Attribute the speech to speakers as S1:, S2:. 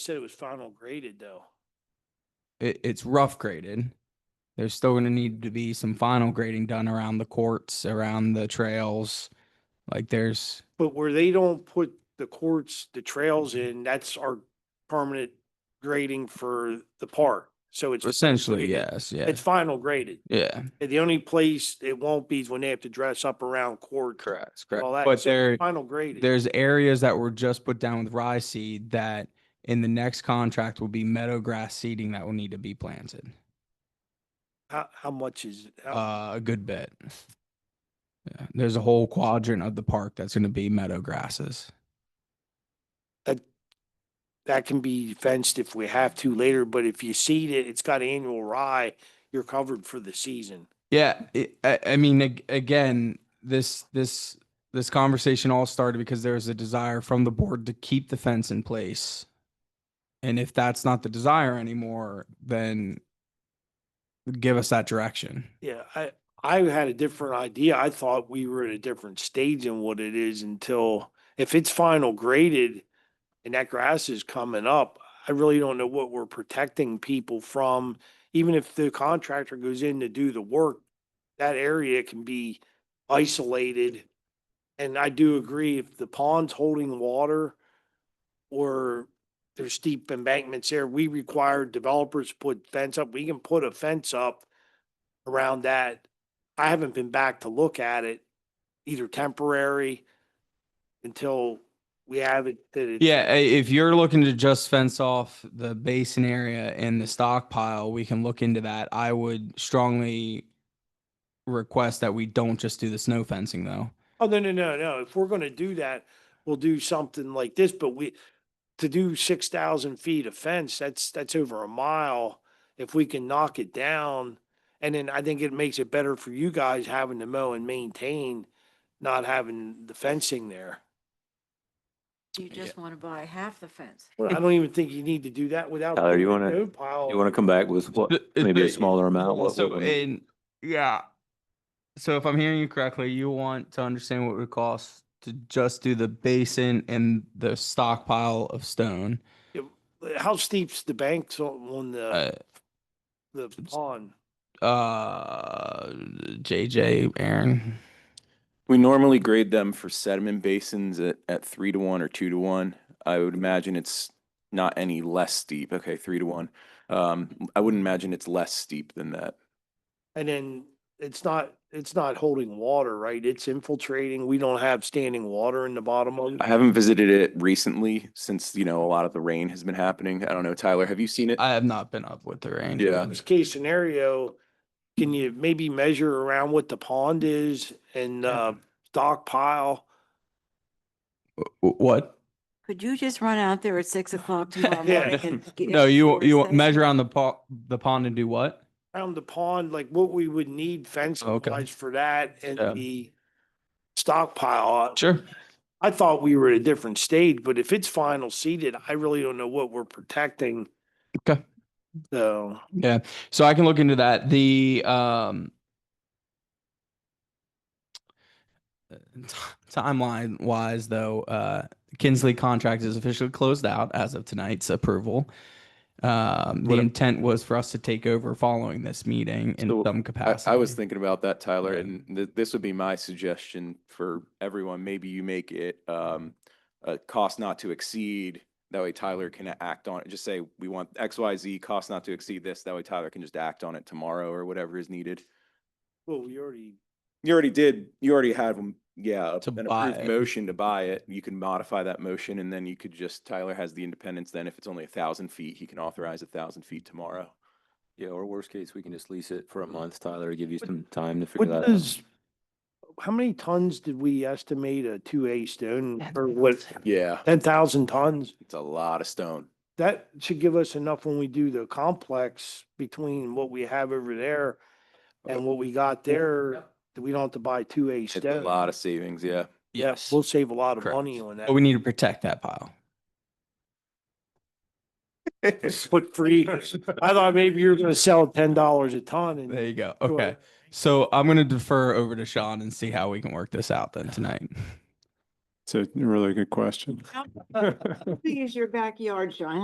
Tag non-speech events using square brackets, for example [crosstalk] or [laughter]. S1: said it was final graded though.
S2: it, it's rough graded. There's still going to need to be some final grading done around the courts, around the trails. Like there's,
S1: But where they don't put the courts, the trails
S2: Mm-hmm.
S1: in, that's our permanent grading for the park. So it's.
S2: essentially,
S1: graded.
S2: yes, yeah,
S1: It's final graded.
S2: yeah,
S1: And The only place it won't be is when they have to dress up around court.
S2: correct, correct.
S1: all that.
S2: But
S1: So
S2: there,
S1: Final graded.
S2: there's areas that were just put down with rye seed that in the next contract will be meadow grass seeding that will need to be planted.
S1: How, how much is, how-
S2: Uh, a good bit. Yeah, there's a whole quadrant of the park that's going to be meadow grasses.
S1: that can be fenced if we have to later, but if you seed it, it's got annual rye, you're covered for the season.
S2: Yeah, it, I, I mean, ag- again, this this this conversation all started because there was a desire from the board to keep the fence in place, and if that's not the desire anymore, then give us that direction.
S1: Yeah, I, I had a different idea. I thought we were at a different stage in what it is until, if it's final graded and that grass is coming up, I really don't know what we're protecting people from. Even if the contractor goes in to do the work, that area can be isolated. And I do agree, if the pond's holding water or there's steep embankments there, we require developers to put fence up. We can put a fence up around that. I haven't been back to look at it, either temporary until we have it that it's.
S2: Yeah, i- if you're looking to just fence off the basin area and the stockpile, we can look into that. I would strongly request that we don't just do the snow fencing though.
S1: Oh, no, no, no, no. If we're gonna do that, we'll do something like this, but we, to do six thousand feet of fence, that's, that's over a mile. If we can knock it down, and then I think it makes it better for you guys having to mow and maintain, not having the fencing there.
S3: You just want to buy half the fence.
S1: Well, I don't even think you need to do that without.
S4: Tyler, you wanna-
S1: No pile.
S4: You want to come back with what,
S2: Th- it-
S4: maybe a
S2: it-
S4: smaller amount? Uh, what-
S2: So
S4: what would-
S2: in yeah, so if I'm hearing you correctly, you want to understand what it would cost to just do the basin and the stockpile of stone.
S1: How steep's the banks on on the,
S2: Uh,
S1: the pond?
S2: uh, JJ, Aaron,
S5: We normally grade them for sediment basins at, at three to one or two to one. I would imagine it's not any less steep. Okay, three to one. Um, I wouldn't imagine it's less steep than that.
S1: And then it's not, it's not holding water, right? It's infiltrating. We don't have standing water in the bottom of it.
S5: I haven't visited it recently since, you know, a lot of the rain has been happening. I don't know, Tyler, have you seen it?
S2: I have not been up with the rain.
S5: Yeah.
S1: Worst case scenario, can you maybe measure around what the pond is and, uh, stockpile?
S2: Wh- What?
S3: Could you just run out there at six o'clock tomorrow
S1: Yeah.
S3: morning? and get-
S2: No, you
S3: get
S2: you
S3: fence?
S2: want measure on the pond the pond and do what?
S1: Around the pond, like what we would need fence
S2: Oh, Okay.
S1: wise for that and
S2: Yeah.
S1: the stockpile.
S2: Sure.
S1: I thought we were at a different stage, but if it's final seeded, I really don't know what we're protecting.
S2: Okay.
S1: So.
S2: Yeah. So I can look into that. The um uh, t- timeline wise though, uh Kinsley contract is officially closed out as of tonight's approval. Um the
S5: What a-
S2: intent was for us to take over following this meeting in
S5: So,
S2: some
S5: I,
S2: capacity.
S5: I was thinking about that, Tyler,
S2: Yeah.
S5: and th- this would be my suggestion for everyone. Maybe you make it, um, a cost not to exceed. That way Tyler can act on it. Just say, we want X, Y, Z, cost not to exceed this. That way Tyler can just act on it tomorrow or whatever is needed.
S1: Well, we already,
S5: You already did, you already had, one- yeah,
S2: To
S5: a- an
S2: buy it.
S5: approved motion to buy it. You can modify that motion and then you could just, Tyler has the independence. Then if it's only a thousand feet, he can authorize a thousand feet tomorrow. Mm.
S4: Yeah, or worst case, we can just lease it for a month, Tyler, to give you some time to figure
S1: what
S4: that out.
S1: does, how many tons did we estimate a two A stone or what,
S5: Yeah,
S1: ten thousand tons?
S5: it's a lot of stone.
S1: That should give us enough when we do the complex between what we have over there and what we got there, that we don't have to buy two A
S5: It's a
S1: stone.
S5: lot of savings, yeah.
S2: yes.
S1: We'll save a lot of
S2: Correct.
S1: money on that.
S2: But we need to protect that pile.
S1: Put
S2: [laughs]
S1: free, I thought maybe you were gonna sell it ten dollars a ton and.
S2: There you go.
S1: Sure.
S2: Okay. So I'm gonna defer over to Sean and see how we can work this out then tonight.
S6: It's a really good question.
S3: How big is your backyard, Sean?